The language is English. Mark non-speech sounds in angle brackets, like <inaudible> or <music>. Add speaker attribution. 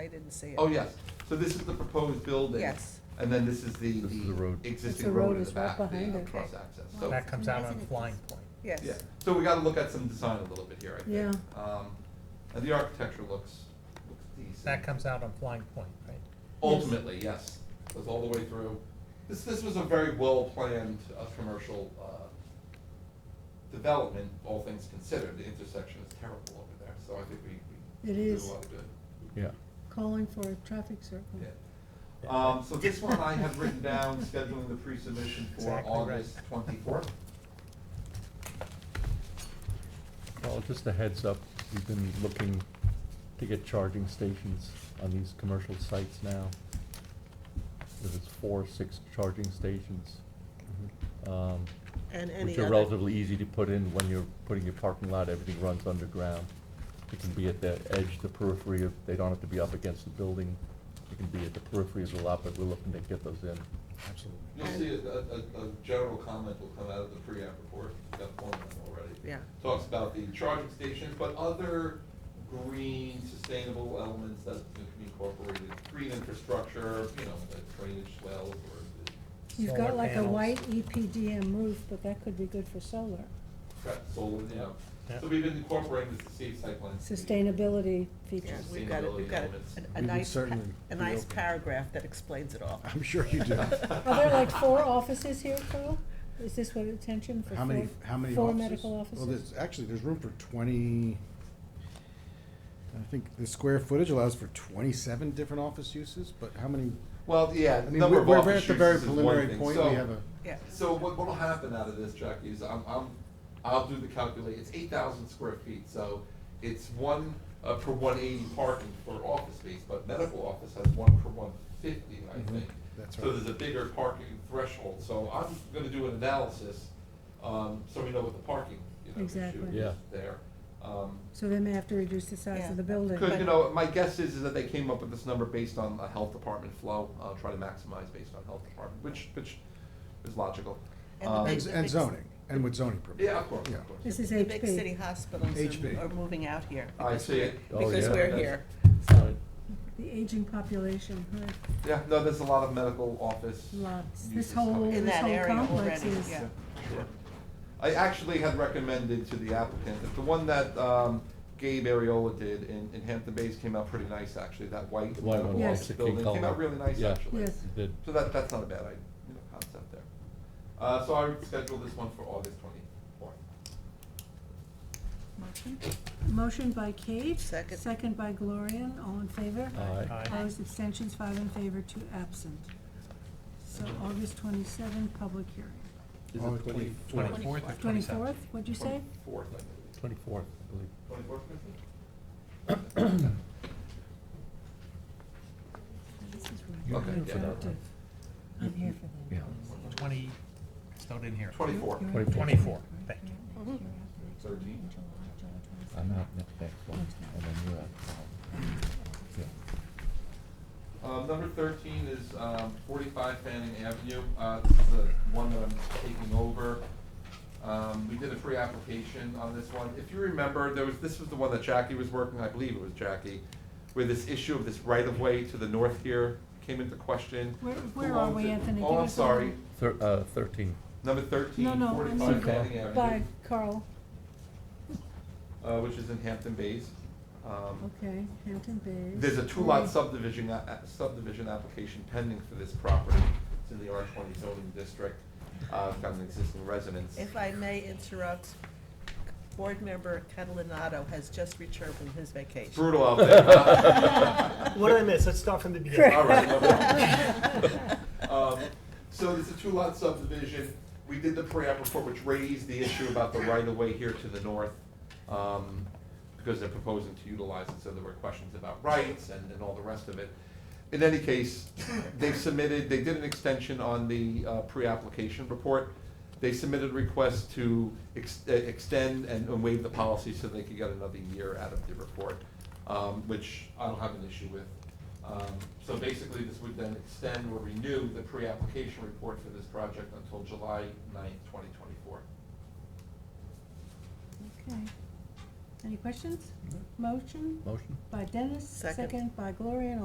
Speaker 1: I didn't see it.
Speaker 2: Oh, yes, so this is the proposed building.
Speaker 1: Yes,
Speaker 2: And then this is the,
Speaker 3: This is the
Speaker 2: the
Speaker 3: road.
Speaker 4: It's the
Speaker 2: existing road
Speaker 4: road
Speaker 2: in the
Speaker 4: is right
Speaker 2: back, the
Speaker 4: behind
Speaker 2: uh,
Speaker 4: it.
Speaker 2: cross access, so.
Speaker 5: That comes out on
Speaker 4: Isn't it
Speaker 5: Flying
Speaker 4: just-
Speaker 5: Point.
Speaker 1: yes.
Speaker 2: Yeah, so we gotta look at some design a little bit here, I think.
Speaker 4: Yeah.
Speaker 2: Um, and the architecture looks, looks decent.
Speaker 5: That comes out on Flying Point, right?
Speaker 2: Ultimately, yes, goes all the way through. This, this was a very well-planned, uh, commercial, uh, development, all things considered. The intersection is terrible over there, so I think we, we
Speaker 4: It
Speaker 2: did
Speaker 4: is.
Speaker 2: a lot of good.
Speaker 3: Yeah.
Speaker 4: calling for a traffic circle.
Speaker 2: Yeah. Um, so this one I have written down, scheduling the pre-submission for
Speaker 5: Exactly right.
Speaker 2: August twenty-fourth.
Speaker 3: Well, just a heads up, we've been looking to get charging stations on these commercial sites now. There's four, six charging stations. um,
Speaker 6: And any
Speaker 3: Which are
Speaker 6: other,
Speaker 3: relatively easy to put in when you're putting your parking lot, everything runs underground. It can be at the edge, the periphery of, they don't have to be up against the building. It can be at the periphery of the lot, but we're looking to get those in.
Speaker 5: Absolutely.
Speaker 2: You'll
Speaker 6: And-
Speaker 2: see a, a, a- a general comment will come out of the pre-app report, we've got one of them already.
Speaker 6: yeah,
Speaker 2: Talks about the charging stations, but other green sustainable elements that can be incorporated, green infrastructure, you know, like drainage wells or
Speaker 4: You've
Speaker 5: Solar
Speaker 4: got like a
Speaker 5: panels.
Speaker 4: white E EPDM roof, but that could be good for solar.
Speaker 2: crap solar, you know.
Speaker 5: Yeah.
Speaker 2: So we've been incorporating this to see site plans.
Speaker 4: Sustainability
Speaker 6: yeah,
Speaker 4: features.
Speaker 6: we've got, it. we've got
Speaker 2: Sustainability
Speaker 6: a- a
Speaker 7: We would
Speaker 6: nice, pa-
Speaker 7: certainly
Speaker 6: a
Speaker 7: be
Speaker 6: nice
Speaker 7: open.
Speaker 6: paragraph that explains it
Speaker 2: <laughs>
Speaker 6: all.
Speaker 7: I'm sure
Speaker 4: <laughs>
Speaker 7: you do.
Speaker 4: Are there like four offices here, Carl? Is this what attention for
Speaker 7: How many,
Speaker 4: four-
Speaker 7: how many offices?
Speaker 4: Four medical
Speaker 7: Well,
Speaker 4: offices?
Speaker 7: there's, actually, there's room for twenty, I think the square footage allows for twenty-seven different office uses, but how many?
Speaker 2: Well, yeah,
Speaker 7: I mean,
Speaker 2: number
Speaker 7: we're,
Speaker 2: of
Speaker 7: we're at
Speaker 2: office
Speaker 7: the very
Speaker 2: uses is one
Speaker 7: preliminary
Speaker 2: thing,
Speaker 7: point,
Speaker 2: so-
Speaker 7: we have a,
Speaker 6: Yeah,
Speaker 2: So what, what'll happen out of this, Jackie, is I'm, I'm, I'll do the calculate, it's eight thousand square feet, so it's one, uh, per one eighty parking for office space, but medical office has one per one fifty, I
Speaker 7: Mhm,
Speaker 2: think.
Speaker 7: that's
Speaker 2: So
Speaker 7: right.
Speaker 2: there's a bigger parking threshold, so I'm gonna do an analysis, um, so we know what the parking, you know, issue
Speaker 4: Exactly.
Speaker 3: Yeah.
Speaker 2: is there. Um,
Speaker 4: So they may have to reduce the size
Speaker 6: Yeah.
Speaker 4: of the building.
Speaker 2: could, you know, my guess is, is that they came up with this number based on a health department flow, uh, try to maximize based on health department, which, which is logical.
Speaker 6: And the
Speaker 2: Um,
Speaker 6: big-
Speaker 7: and and zoning, and with zoning permits.
Speaker 2: Yeah, of course,
Speaker 7: Yeah.
Speaker 2: of course.
Speaker 4: This is
Speaker 6: The big city
Speaker 4: HB.
Speaker 6: hospitals
Speaker 7: HB.
Speaker 6: are, are moving out here.
Speaker 2: I
Speaker 6: because
Speaker 2: see it.
Speaker 3: Oh,
Speaker 6: we're- Because
Speaker 3: yeah.
Speaker 6: we're here,
Speaker 3: Right.
Speaker 4: The aging population, right,
Speaker 2: Yeah, no, there's a lot of medical office.
Speaker 4: lots.
Speaker 2: uses
Speaker 4: This whole,
Speaker 2: coming
Speaker 6: In
Speaker 4: this
Speaker 6: that
Speaker 4: whole
Speaker 6: area
Speaker 4: complex
Speaker 6: already,
Speaker 4: is.
Speaker 6: yeah.
Speaker 2: Sure. I actually had recommended to the applicant, that the one that um, Gabe Ariola did in, in Hampton Bays came out pretty nice, actually, that white
Speaker 3: The white one,
Speaker 2: medical
Speaker 4: yes.
Speaker 2: office
Speaker 3: It's a
Speaker 2: building,
Speaker 3: king
Speaker 2: came out
Speaker 3: color.
Speaker 2: really nice,
Speaker 3: Yeah.
Speaker 2: actually.
Speaker 4: Yes.
Speaker 3: Did-
Speaker 2: So that, that's not a bad, idea, you know, concept there. Uh, so I would schedule this one for August twenty-fourth.
Speaker 6: Motion?
Speaker 4: Motion by Kate.
Speaker 6: Second.
Speaker 4: Second by Gloria, all in favor?
Speaker 3: Aye.
Speaker 5: Aye.
Speaker 4: Opposed, abstentions, five in favor, two absent. So August twenty-seventh, public hearing.
Speaker 3: Is
Speaker 7: Oh,
Speaker 3: it twenty,
Speaker 7: twenty-
Speaker 5: Twenty-fourth or twenty-seventh?
Speaker 4: Twenty-fourth, what'd you say?
Speaker 2: Twenty-fourth, I believe.
Speaker 3: twenty-fourth, I believe.
Speaker 2: Twenty-fourth, Christine?
Speaker 4: This is
Speaker 2: You're
Speaker 4: right.
Speaker 2: Okay,
Speaker 4: I'm
Speaker 2: here
Speaker 4: for
Speaker 2: yeah.
Speaker 4: that. I'm here for that.
Speaker 3: Yeah.
Speaker 5: Twenty, it's not in here.
Speaker 2: Twenty-fourth.
Speaker 4: You're-
Speaker 3: Twenty-
Speaker 5: Twenty-four, thank you.
Speaker 2: Thirteen.
Speaker 3: I'm out next, next one, and then you're out. Yeah.
Speaker 2: Um, number thirteen is, um, forty-five Fanning Avenue, uh, this is the one that I'm taking over. Um, we did a pre-application on this one, if you remember, there was, this was the one that Jackie was working, I believe it was Jackie, where this issue of this right-of-way to the north here came into question.
Speaker 4: Where, where
Speaker 2: Who
Speaker 4: are
Speaker 2: owns
Speaker 4: we,
Speaker 2: it?
Speaker 4: Anthony?
Speaker 2: Oh,
Speaker 4: Give
Speaker 2: I'm
Speaker 4: us a little-
Speaker 2: sorry,
Speaker 3: Thir- uh, thirteen.
Speaker 2: number thirteen,
Speaker 4: No, no, I
Speaker 2: forty-five Fanning
Speaker 4: mean, by
Speaker 2: Avenue,
Speaker 4: Carl,
Speaker 2: uh, which is in Hampton Bays. Um,
Speaker 4: okay, Hampton Bays.
Speaker 2: There's a two-lot subdivision, a- a- subdivision application pending for this property. It's in the R twenty zoning district. Uh, it's got an existing residence.
Speaker 6: If I may interrupt, Board Member Catalinato has just returned from his
Speaker 2: It's
Speaker 6: vacation.
Speaker 2: Brutal out there.
Speaker 5: What did I miss? Let's start from the
Speaker 4: beginning.
Speaker 2: All right. no problem. Um, So it's a two-lot subdivision. We did the pre-app report, which raised the issue about the right-of-way here to the north, um, because they're proposing to utilize it, so there were questions about rights and, and all the rest of it. In any case, they submitted, they did an extension on the uh, pre-application report. They submitted a request to ex- uh, extend and and waive the policy so they could get another year out of the report, um, which I don't have an issue with. Um, So basically, this would then extend or renew the pre-application report for this project until July ninth, twenty twenty-four.
Speaker 4: Okay. Any questions? Motion
Speaker 3: Motion?
Speaker 4: by Dennis,
Speaker 6: Second.
Speaker 4: second by Gloria, and